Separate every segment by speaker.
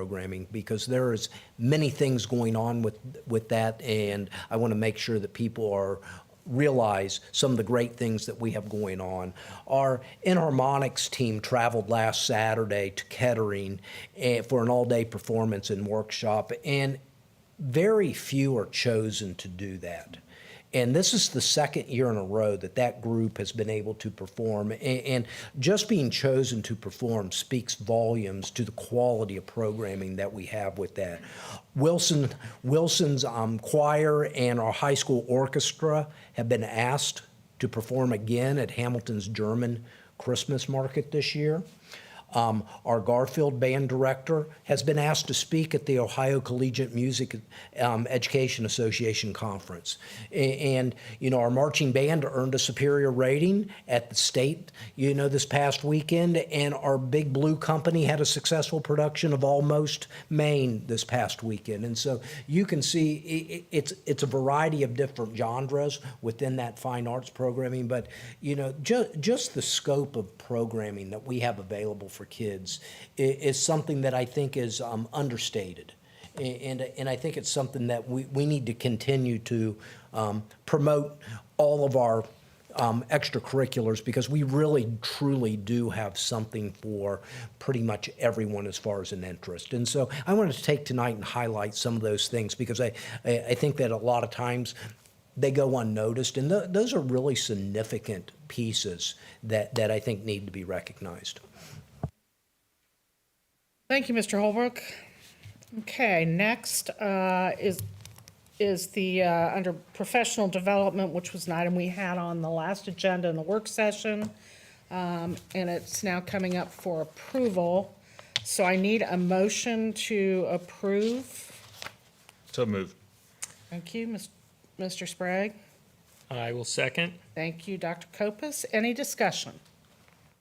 Speaker 1: programming because there is many things going on with with that, and I want to make sure that people are realize some of the great things that we have going on. Our Enharmonics team traveled last Saturday to Kettering eh, for an all-day performance and workshop, and very few are chosen to do that. And this is the second year in a row that that group has been able to perform. And, and just being chosen to perform speaks volumes to the quality of programming that we have with that. Wilson, Wilson's um, choir and our high school orchestra have been asked to perform again at Hamilton's German Christmas market this year. Um, our Garfield band director has been asked to speak at the Ohio Collegiate Music um, Education Association conference, A- and you know our marching band earned a superior rating at the state, you know, this past weekend, and our Big Blue Company had a successful production of Almost Maine this past weekend, and so you can see i- i it's it's a variety of different genres within that fine arts programming, but you know ju- just the scope of programming that we have available for kids i- is something that I think is um, understated. A- And, and I think it's something that we, we need to continue to um, promote all of our um, extracurriculars because we really truly do have something for pretty much everyone as far as an interest. And so I wanted to take tonight and highlight some of those things because I, I, I think that a lot of times they go unnoticed, and tho- those are really significant pieces that, that I think need to be recognized.
Speaker 2: Thank you, Mr. Holbrook. Okay, next uh, is, is the, uh, under professional development, which was an item we had on the last agenda in the work session, um, and it's now coming up for approval. So I need a motion to approve.
Speaker 3: So moved.
Speaker 2: Thank you, Ms- Mr. Sprague.
Speaker 4: I will second.
Speaker 2: Thank you, Dr. Kopus. Any discussion?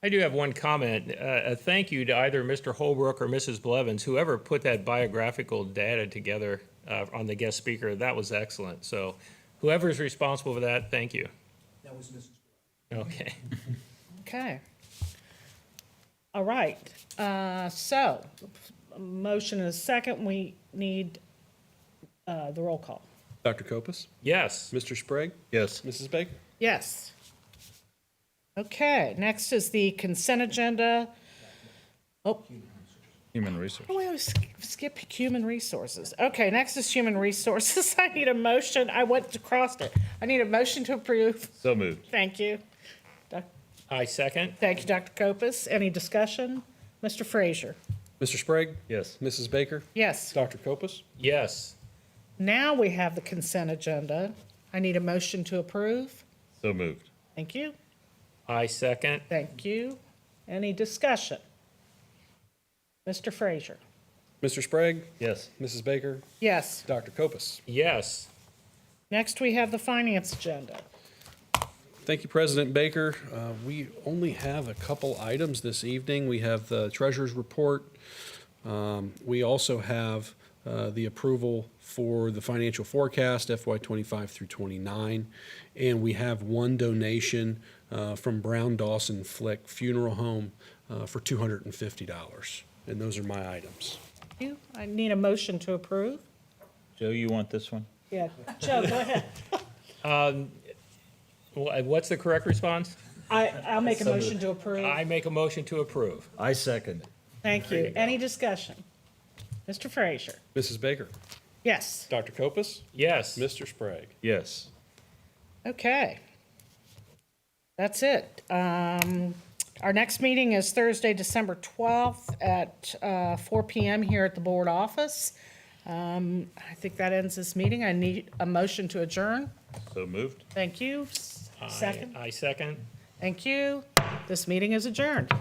Speaker 4: I do have one comment. Uh, a thank you to either Mr. Holbrook or Mrs. Blevins, whoever put that biographical data together uh, on the guest speaker. That was excellent. So, whoever's responsible for that, thank you.
Speaker 1: That was Mrs.
Speaker 4: Okay.
Speaker 2: Okay. All right, uh, so, a motion and a second, we need, uh, the roll call.
Speaker 5: Dr. Copus?
Speaker 4: Yes.
Speaker 5: Mr. Sprague?
Speaker 3: Yes.
Speaker 5: Mrs. Baker?
Speaker 2: Yes. Okay, next is the consent agenda. Oh,
Speaker 3: Human resource.
Speaker 2: we always sk- skip human resources. Okay, next is human resources. I need a motion, I went across it. I need a motion to approve.
Speaker 3: So moved.
Speaker 2: Thank you. Doc-
Speaker 4: I second.
Speaker 2: Thank you, Dr. Kopus. Any discussion? Mr. Frazier?
Speaker 5: Mr. Sprague?
Speaker 3: Yes.
Speaker 5: Mrs. Baker?
Speaker 2: Yes.
Speaker 5: Dr. Copus?
Speaker 4: Yes.
Speaker 2: Now we have the consent agenda. I need a motion to approve.
Speaker 3: So moved.
Speaker 2: Thank you.
Speaker 4: I second.
Speaker 2: Thank you. Any discussion? Mr. Frazier?
Speaker 5: Mr. Sprague?
Speaker 3: Yes.
Speaker 5: Mrs. Baker?
Speaker 2: Yes.
Speaker 5: Dr. Copus?
Speaker 4: Yes.
Speaker 2: Next, we have the finance agenda.
Speaker 5: Thank you, President Baker. Uh, We only have a couple items this evening. We have the treasurer's report. Um, We also have uh, the approval for the financial forecast FY '25 through '29. And we have one donation uh, from Brown Dawson Flick Funeral Home uh, for $250. And those are my items.
Speaker 2: Thank You, I need a motion to approve.
Speaker 3: Joe, you want this one?
Speaker 2: Yeah, Joe, go ahead.
Speaker 4: Wha- What's the correct response?
Speaker 2: I, I'll make a motion to approve.
Speaker 4: I make a motion to approve.
Speaker 3: I second.
Speaker 2: Thank you. Any discussion? Mr. Frazier?
Speaker 5: Mrs. Baker?
Speaker 2: Yes.
Speaker 5: Dr. Copus?
Speaker 4: Yes.
Speaker 5: Mr. Sprague?
Speaker 3: Yes.
Speaker 2: Okay. That's it. Um, Our next meeting is Thursday, December 12th at uh, 4 PM here at the board office. Um, I think that ends this meeting. I need a motion to adjourn.
Speaker 3: So moved.
Speaker 2: Thank you.
Speaker 4: I-
Speaker 2: Second.
Speaker 4: I second.
Speaker 2: Thank you. This meeting is adjourned.